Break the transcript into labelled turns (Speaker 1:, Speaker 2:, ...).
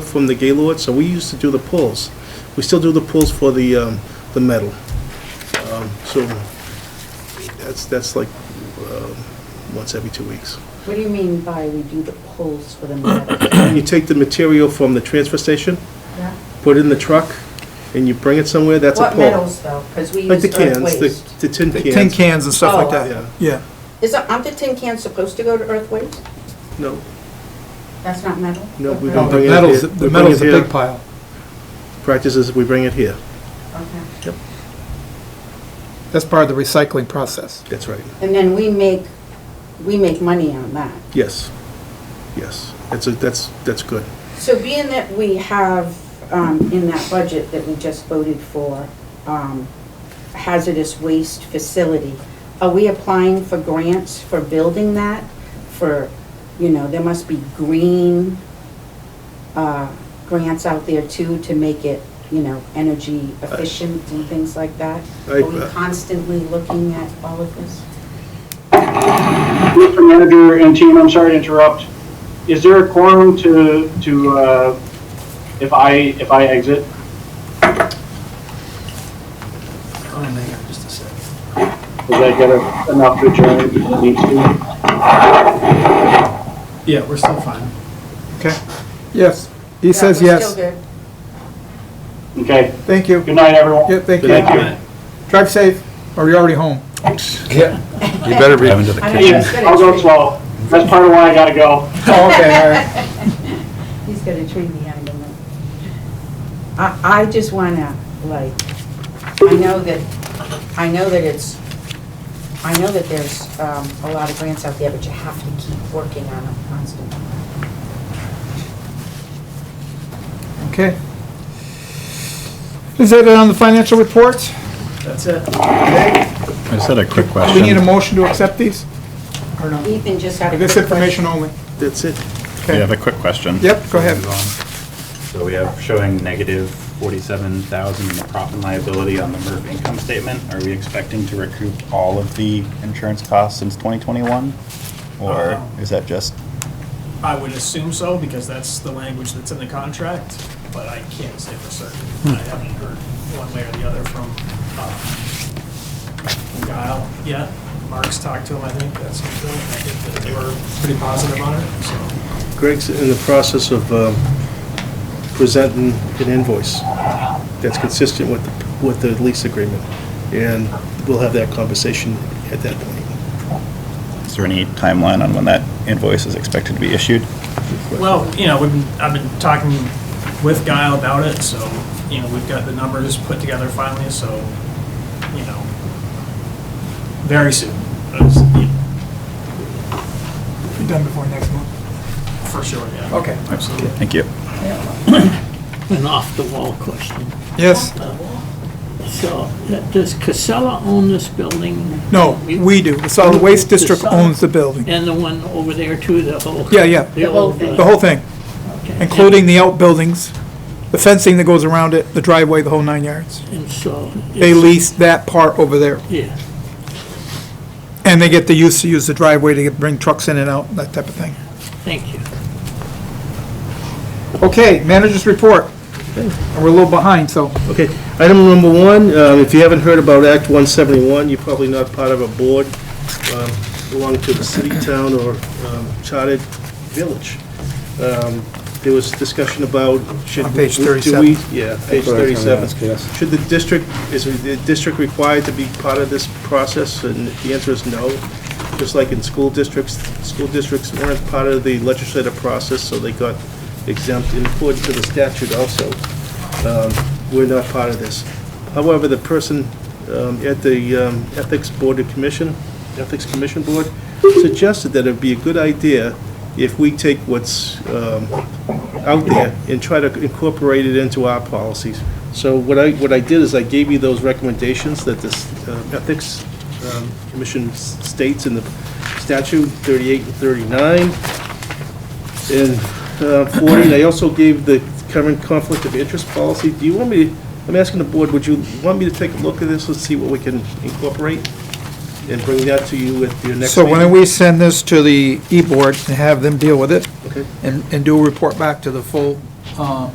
Speaker 1: from the Gaylord, so we used to do the pulls. We still do the pulls for the, um, the metal. Um, So that's, that's like, um, once every two weeks.
Speaker 2: What do you mean by we do the pulls for the metal?
Speaker 1: You take the material from the transfer station,
Speaker 2: Yeah.
Speaker 1: put it in the truck, and you bring it somewhere, that's a
Speaker 2: What
Speaker 1: pull.
Speaker 2: metals though? Because we
Speaker 1: Like
Speaker 2: use
Speaker 1: the
Speaker 2: earth
Speaker 1: cans,
Speaker 2: waste.
Speaker 1: the- the tin
Speaker 3: The Tin
Speaker 1: cans.
Speaker 3: cans and stuff like
Speaker 2: Oh,
Speaker 1: yeah.
Speaker 3: that, yeah.
Speaker 2: Is, it- aren't the tin cans supposed to go to earth waste?
Speaker 1: No,
Speaker 2: That's not metal?
Speaker 1: No, we
Speaker 3: No,
Speaker 1: don't
Speaker 3: The
Speaker 1: bring it here.
Speaker 3: metal's, the
Speaker 1: We bring
Speaker 3: metal's
Speaker 1: it
Speaker 3: a
Speaker 1: here.
Speaker 3: big pile.
Speaker 1: practice is we bring it here.
Speaker 2: Okay.
Speaker 3: That's part of the recycling process.
Speaker 1: That's right.
Speaker 2: And then we make, we make money on that.
Speaker 1: Yes, yes. That's, a- that's, that's good.
Speaker 2: So being that we have um, in that budget that we just voted for um, hazardous waste facility, are we applying for grants for building that? For, you know, there must be green uh, grants out there too to make it, you know, energy efficient and things like that?
Speaker 1: I-
Speaker 2: Are we constantly looking at all of this?
Speaker 4: Mr. Manager and team, I'm sorry to interrupt. Is there a quorum to, to, uh, if I, if I exit? Does that get enough to adjourn if it needs to?
Speaker 5: Yeah, we're still fine.
Speaker 3: Okay. Yes. He says yes.
Speaker 4: Okay,
Speaker 3: Thank you.
Speaker 4: good night, everyone.
Speaker 3: Yeah, thank
Speaker 1: Good
Speaker 4: Thank
Speaker 3: you.
Speaker 4: you.
Speaker 3: Drive safe, or you're already home.
Speaker 6: You better be.
Speaker 2: I know,
Speaker 4: Hey,
Speaker 2: he's
Speaker 4: I'll
Speaker 2: gonna
Speaker 4: go
Speaker 2: treat,
Speaker 4: slow. That's part of why I gotta go.
Speaker 3: Oh, okay, all right.
Speaker 2: he's gonna treat me under me. I, I just wanna, like, I know that, I know that it's, I know that there's, um, a lot of grants out there, but you have to keep working on them constantly.
Speaker 3: Okay. Is that it on the financial reports?
Speaker 5: That's it.
Speaker 6: I just had a quick
Speaker 3: Do we need a
Speaker 6: question.
Speaker 3: motion to accept these? Or no?
Speaker 2: Ethan just had a
Speaker 3: This
Speaker 2: quick question.
Speaker 3: information only?
Speaker 1: That's it.
Speaker 6: We have
Speaker 3: Okay.
Speaker 6: a quick question.
Speaker 3: Yep, go ahead.
Speaker 6: So we have showing negative 47,000 in the profit and liability on the MERV income statement. Are we expecting to recoup all of the insurance costs since 2021? Or is that just,
Speaker 5: I would assume so, because that's the language that's in the contract, but I can't say for certain. I haven't heard one way or the other from uh, Guile yet. Mark's talked to him, I think, that's, I think that they were pretty positive on it, so.
Speaker 1: Greg's in the process of um, presenting an invoice that's consistent with, with the lease agreement, and we'll have that conversation at that point.
Speaker 6: is there any timeline on when that invoice is expected to be issued?
Speaker 5: Well, you know, we've, been- I've been talking with Guile about it, so, you know, we've got the numbers put together finally, so, you know, very soon, It's, you know,
Speaker 3: Be done before next month.
Speaker 5: for sure, yeah.
Speaker 3: Okay.
Speaker 5: Absolutely.
Speaker 6: Thank you.
Speaker 7: an off-the-wall question.
Speaker 3: Yes,
Speaker 7: So, uh, does Casella own this building
Speaker 3: no, Oh, we do. The solid waste district owns the building.
Speaker 7: and the one over there too, the whole?
Speaker 3: Yeah, yeah.
Speaker 7: The old, uh,
Speaker 3: The whole thing,
Speaker 7: okay.
Speaker 3: including the outbuildings, the fencing that goes around it, the driveway, the whole nine yards.
Speaker 7: And so.
Speaker 3: They
Speaker 7: it's-
Speaker 3: lease that part over there,
Speaker 7: Yeah,
Speaker 3: and they get the use to use the driveway to get- bring trucks in and out, that type of thing.
Speaker 7: thank you.
Speaker 3: Okay, managers report. We're a little behind, so.
Speaker 1: Okay, item number one, um, if you haven't heard about Act 171, you're probably not part of a board um, belonging to the city, town, or um, chartered village. Um, There was discussion about, should...
Speaker 3: On page
Speaker 1: do we-
Speaker 3: 37.
Speaker 1: Yeah, page 37. Should the district, is the district required to be part of this process? And the answer is no. Just like in school districts, school districts weren't part of the legislative process, so they got exempt in accordance to the statute also um, we're not part of this. However, the person um, at the um, Ethics Board of Commission, Ethics Commission Board, suggested that it'd be a good idea if we take what's um, out there and try to incorporate it into our policies. So what I, what I did is I gave you those recommendations that this uh, Ethics um, Commission s- states in the statute 38 and 39 in uh, 40, and I also gave the current conflict of interest policy. Do you want me, to I'm asking the board, would you want me to take a look at this and see what we can incorporate? And bring that to you at your next
Speaker 3: So
Speaker 1: meeting?
Speaker 3: why don't we send this to the E-Board and have them deal with it
Speaker 1: Okay.
Speaker 3: and, and do a report back to the full uh,